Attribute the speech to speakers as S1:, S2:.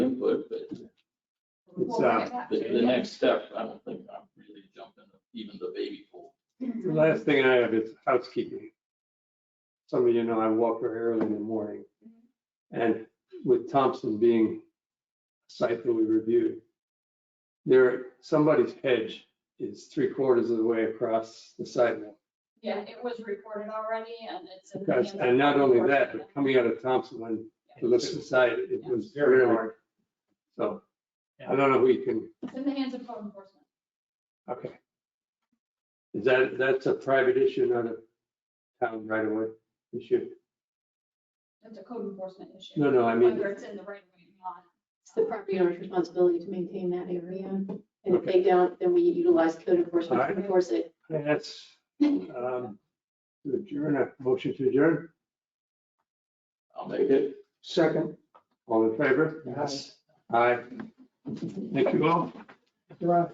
S1: uh,
S2: The, the next step, I don't think I'm really jumping even the baby pool.
S1: the last thing I have is housekeeping. Some of you know I walk very early in the morning. And with Thompson being a site that we reviewed, there, somebody's hedge is three quarters of the way across the sidewalk.
S3: Yeah, it was reported already and it's. in the
S1: Because,
S3: hands of
S1: and not
S3: the
S1: only
S3: board.
S1: that, but coming out of Thompson, when you look at the site, it was
S4: Very
S1: really,
S4: hard.
S1: so. I don't know who you can,
S3: It's in the hands of code enforcement.
S1: okay. Is that, that's a private issue, not a town right away issue?
S3: It's a code enforcement issue.
S1: No, no, I mean,
S3: Whether it's in the right way or not.
S5: It's the property owner's responsibility to maintain that area. And if they don't, then we utilize code enforcement
S1: Alright.
S5: to enforce it.
S1: that's, um, to adjourn, a motion to adjourn,
S2: I'll make it.
S4: Second,
S1: all in favor?
S4: Yes.
S1: Aye. Thank you all.
S4: Rob?